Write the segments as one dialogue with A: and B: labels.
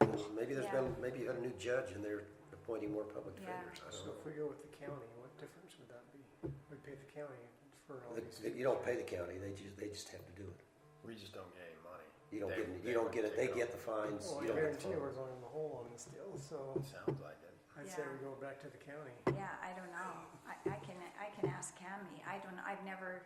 A: Maybe there's
B: Yeah.
A: been, maybe you got a new judge and they're appointing more public
B: Yeah.
A: defenders, I don't
C: So
A: know.
C: if we go with the county, what difference would that be? We pay the county for all
A: The-
C: these.
A: the- You don't pay the county, they just, they just have to do it.
D: We just don't get any money.
A: You don't
D: They-
A: get, any-
D: they
A: you don't
D: would
A: get it, they
D: take
A: get the fines,
C: Well, I
A: you don't get the
C: guarantee you we're
A: fines.
C: going in the hole on this deal, so
D: It sounds like it.
C: I'd say we
B: Yeah.
C: go back to the county.
B: Yeah, I don't know. I, I can, I can ask Cammy. I don't, I've never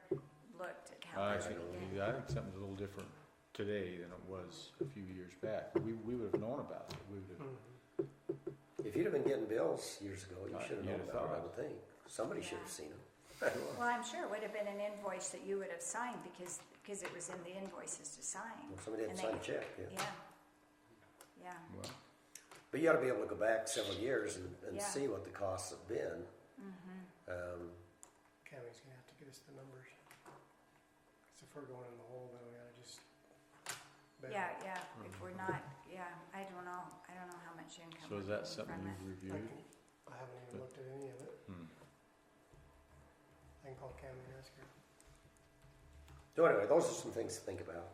B: looked at how
E: I
B: much we
E: think,
B: get.
E: I think something's a little different today than it was a few years back. We, we would have known about it. We would have,
C: Hmm.
A: If you'd have been getting bills years ago, you
E: Uh,
A: should have
E: you'd
A: known
E: have
A: about it, I
E: thought.
A: would think. Somebody should
B: Yeah.
A: have seen them.
B: Well, I'm sure it would have been an invoice that you would have signed because, because it was in the invoices to sign.
A: Well, Somebody didn't
B: And
A: sign a
B: they-
A: check, yeah.
B: Yeah. Yeah,
E: well,
A: But you ought to be able to go back several years and, and
B: Yeah.
A: see what the costs have been.
B: Mm-hmm.
A: Um,
C: County's gonna have to get us the numbers. Cause if we're going in the hole, then we gotta just. bail.
B: yeah, yeah. If we're not, yeah, I don't know. I don't know how much income.
E: so is
B: we're
E: that
B: getting
E: something
B: from
E: you've
C: I
E: reviewed?
C: can- I haven't even
E: But-
C: looked at any of it.
E: Hmm.
C: I can call county and ask her.
A: So anyway, those are some things to think about.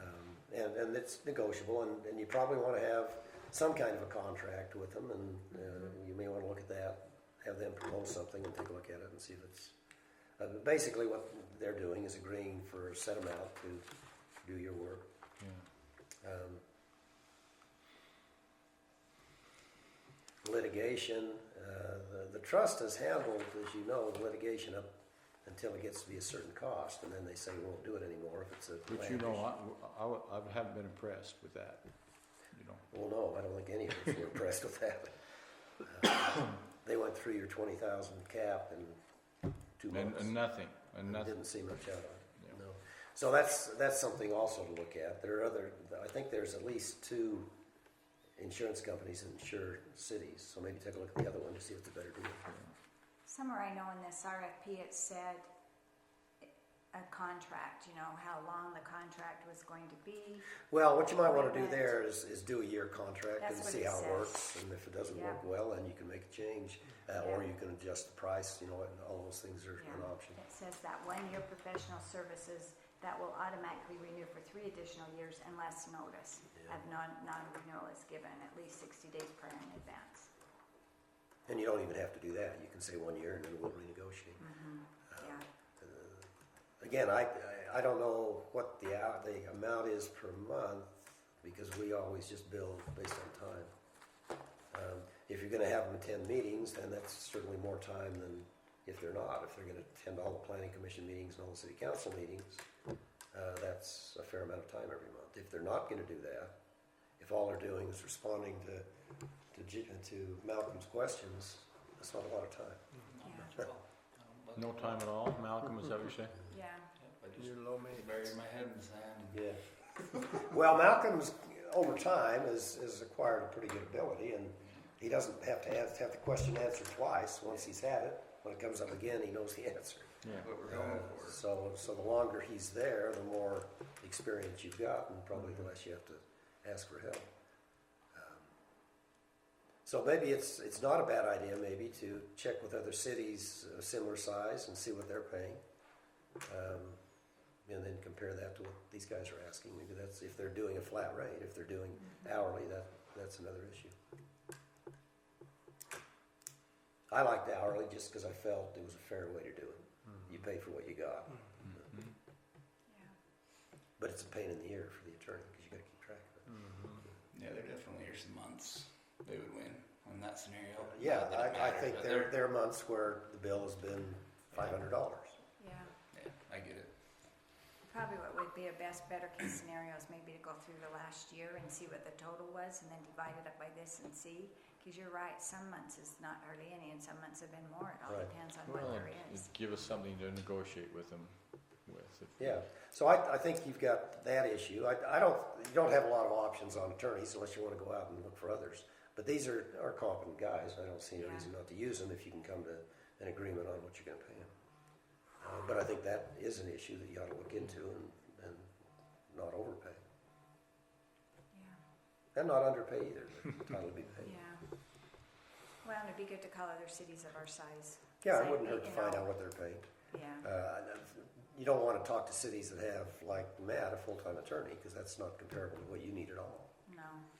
A: Um, and, and it's negotiable, and, and you probably want to have some kind of a contract with them, and uh, you may want to look at that, have them propose something and take a look at it and see if it's. Uh, but basically, what they're doing is agreeing for a set amount to do your work.
E: Yeah.
A: Um, litigation, uh, the, the trust has handled, as you know, litigation up until it gets to be a certain cost, and then they say, we won't do it anymore if it's a.
E: But
A: land
E: you know,
A: issue."
E: I, I, would- I haven't been impressed with that, you know.
A: Well, no, I don't think any of us were impressed with that. Uh, They went through your twenty thousand cap in two
E: And,
A: months.
E: and nothing, and
A: and
E: nothing.
A: Didn't see much out of it,
E: Yeah.
A: no. So that's, that's something also to look at. There are other, I think there's at least two insurance companies that insure cities, so maybe take a look at the other one to see if it's a better deal.
B: Somewhere I know in this RFP, it said a contract, you know, how long the contract was going to be.
A: Well, what you might wanna do there is, is do a year contract and
B: That's what
A: see
B: it
A: how it
B: says.
A: works, and if it doesn't work
B: Yeah.
A: well, then you can make a change. Uh, or
B: Yeah.
A: you can adjust the price, you know, and all those things are an
B: Yeah.
A: option.
B: It says that one-year professional services that will automatically renew for three additional years unless notice
A: Yeah.
B: of non, non-renewal is given at least sixty days prior in advance.
A: And you don't even have to do that. You can say one year and then we'll renegotiate. Uh,
B: Yeah,
A: Again, I, I- I don't know what the out, the amount is per month because we always just bill based on time. Um, if you're gonna have them attend meetings, then that's certainly more time than if they're not. If they're gonna attend all the planning commission meetings and all the city council meetings, uh, that's a fair amount of time every month. If they're not gonna do that, if all they're doing is responding to, to, J- to Malcolm's questions, that's not a lot of time.
B: yeah,
E: No time at all, Malcolm, is that what you're saying?
B: yeah.
F: I just buried my head in the sand.
A: Yeah. Well, Malcolm's over time has, has acquired a pretty good ability, and he doesn't have to have, have the question answered twice. Once he's had it, when it comes up again, he knows the answer.
E: Yeah.
F: What we're going
A: Uh,
F: for.
A: So, so the longer he's there, the more experience you've got, and probably the less you have to ask for help. Um, So maybe it's, it's not a bad idea, maybe, to check with other cities of similar size and see what they're paying. Um, And then compare that to what these guys are asking. Maybe that's, if they're doing a flat rate, if they're doing hourly, that, that's another issue. I liked hourly just because I felt it was a fair way to do it. You pay for what you got. But it's a pain in the ear for the attorney because you got to keep track of it.
E: Mm-hmm.
F: Yeah, they're definitely here's months. They would win in that scenario.
A: Oh, Yeah,
F: Not
A: I,
F: that it
A: I
F: matters,
A: think
F: but
A: there, there are months where the bill has been five hundred dollars.
B: Yeah,
F: Yeah, I get it.
B: probably what would be a best, better case scenario is maybe to go through the last year and see what the total was and then divide it up by this and see. Cause you're right, some months is not hardly any and some months have been more. It all
A: Right.
B: depends on what
E: Well,
B: there is.
E: it'd give us something to negotiate with them with. if-
A: Yeah, so I, I think you've got that issue. I, I don't, you don't have a lot of options on attorneys unless you want to go out and look for others. But these are, are competent guys. I don't see any
B: Yeah.
A: reason not to use them if you can come to an agreement on what you're going to pay them. Uh, but I think that is an issue that you ought to look into and, and not overpay.
B: Yeah.
A: And not underpay either, but entitled to be paid.
B: Yeah. Well, and it'd be good to call other cities of our size.
A: Yeah, it
B: Same,
A: wouldn't hurt to
B: you
A: find
B: know.
A: out what they're paying.
B: Yeah,
A: Uh, You don't want to talk to cities that have, like Matt, a full-time attorney, because that's not comparable to what you need at all.
B: no,